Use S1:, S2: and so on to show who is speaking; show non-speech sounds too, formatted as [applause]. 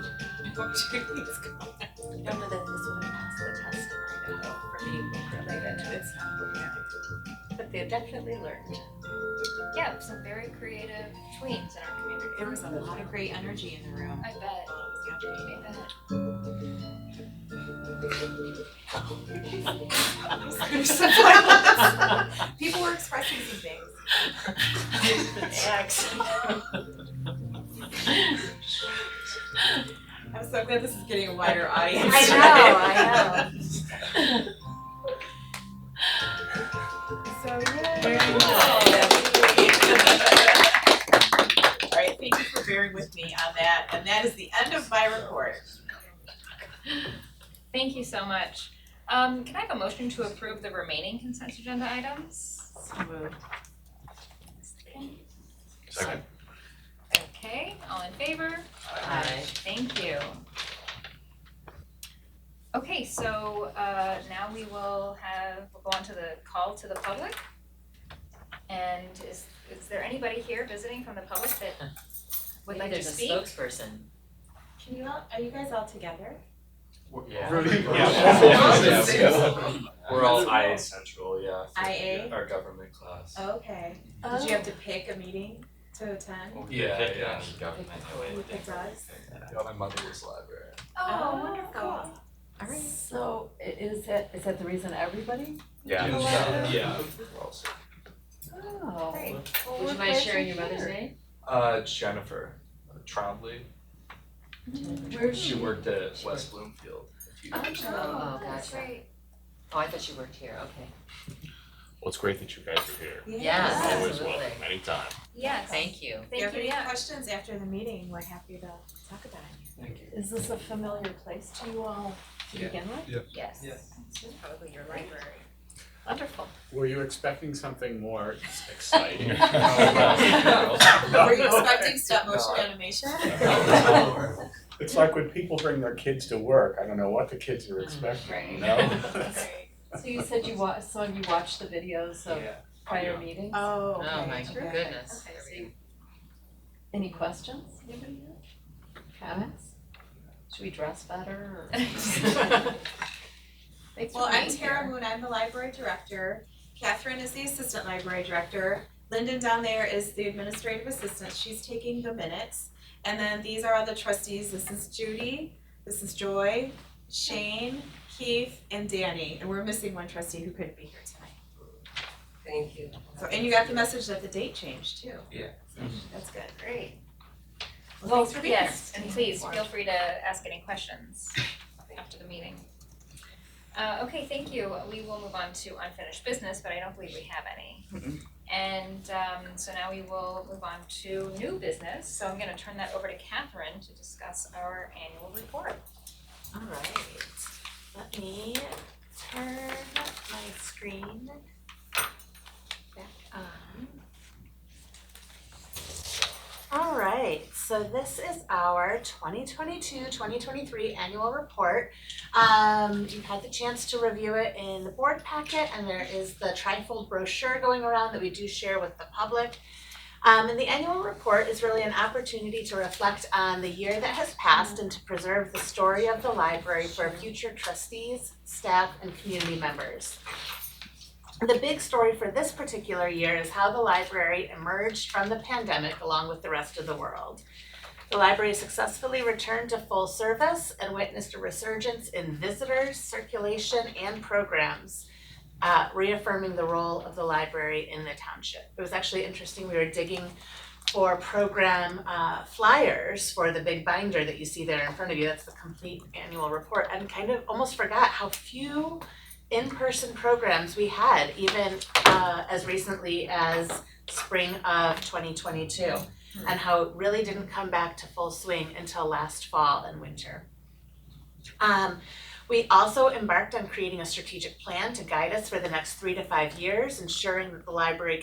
S1: before Jeremy's gone.
S2: You don't know that this would have passed the test right now for being related to its But they definitely learned.
S3: Yeah, some very creative tweens in our community.
S1: There was a lot of great energy in the room.
S3: I bet, I bet.
S2: People were expressing some things.
S1: I'm so glad this is getting a wider audience.
S3: I know, I know.
S2: So yeah.
S1: All right, thank you for bearing with me on that, and that is the end of my report.
S3: Thank you so much. Um, can I have a motion to approve the remaining consent agenda items?
S4: Second.
S3: Okay, all in favor?
S5: Aye.
S3: Thank you. Okay, so uh now we will have, we'll go on to the call to the public. And is is there anybody here visiting from the public that would like to speak?
S5: There's a spokesperson.
S2: Can you all, are you guys all together?
S4: [laughs]
S6: Yeah.
S4: We're all IA Central, yeah. for
S2: IA?
S4: Our government class.
S2: Okay. Did you have to pick a meeting to attend?
S4: Yeah, yeah.
S2: Government. Who picked us?
S4: Yeah, my mother was librarian.
S2: Oh, wonderful.
S1: Alright.
S7: So i- is that, is that the reason everybody?
S4: Yeah. Yeah. We're all-
S7: Oh.
S2: Great.
S5: Would you mind sharing your mother's name?
S4: Uh, Jennifer uh, Trombley,
S7: Where's
S4: she worked at West Bloomfield a few years ago.
S5: Oh,
S3: That's
S5: gotcha.
S3: right.
S5: Oh, I thought you worked here, okay.
S8: Well, it's great that you guys are here.
S5: Yes,
S2: Yeah.
S8: Always
S5: absolutely.
S8: welcome, anytime.
S3: Yes, thank
S5: Thank you.
S2: If you have
S3: you,
S2: any
S3: yeah.
S2: questions after the meeting, we're happy to talk about it.
S4: Thank you.
S7: Is this a familiar place to you all to
S4: Yeah.
S7: begin with?
S3: Yes.
S4: Yeah.
S3: This is probably your library.
S7: Wonderful.
S9: Were you expecting something more
S2: [laughs]
S4: [laughs]
S9: exciting?
S8: [laughs]
S2: Were you expecting stop motion animation?
S4: Oh,
S9: It's like when people bring their kids to work, I don't know what the kids
S2: Mm,
S9: are expecting, you know?
S2: Great.
S7: So you said you wa- so you
S3: [laughs]
S7: watched the videos of
S4: Yeah.
S7: prior
S4: Yeah.
S7: meetings?
S2: Oh, okay.
S5: Oh, my
S2: Okay.
S5: goodness.
S2: Okay, so
S7: Any questions? Anybody have Comments? Should we dress better
S5: [laughs]
S7: or? Thanks for
S2: Well, I'm
S7: being
S2: Tara
S7: here.
S2: Moon, I'm the library director. Catherine is the assistant library director. Lyndon down there is the administrative assistant, she's taking the minutes. And then these are all the trustees, this is Judy, this is Joy, Shane, Keith, and Danny. And we're missing one trustee who couldn't be here tonight.
S5: Thank you.
S2: So, and you got the message that the date changed too.
S4: Yeah.
S2: So, That's good.
S3: Great.
S2: Well, thanks for being here.
S3: Yes, and please feel free to ask any questions after the meeting. Uh, okay, thank you. We will move on to unfinished business, but I don't believe we have any. And um, so now we will move on to new business. So I'm gonna turn that over to Catherine to discuss our annual report.
S2: All right, let me turn my screen back on. All right, so this is our 2022-2023 annual report. Um, you've had the chance to review it in the board packet and there is the trifold brochure going around that we do share with the public. Um, and the annual report is really an opportunity to reflect on the year that has passed and to preserve the story of the library for future trustees, staff, and community members. The big story for this particular year is how the library emerged from the pandemic along with the rest of the world. The library successfully returned to full service and witnessed a resurgence in visitors, circulation, and programs uh reaffirming the role of the library in the township. It was actually interesting, we were digging for program uh flyers for the big binder that you see there in front of you, that's the complete annual report, and kind of almost forgot how few in-person programs we had, even uh as recently as spring of twenty twenty-two. And how it really didn't come back to full swing until last fall and winter. Um we also embarked on creating a strategic plan to guide us for the next three to five years, ensuring that the library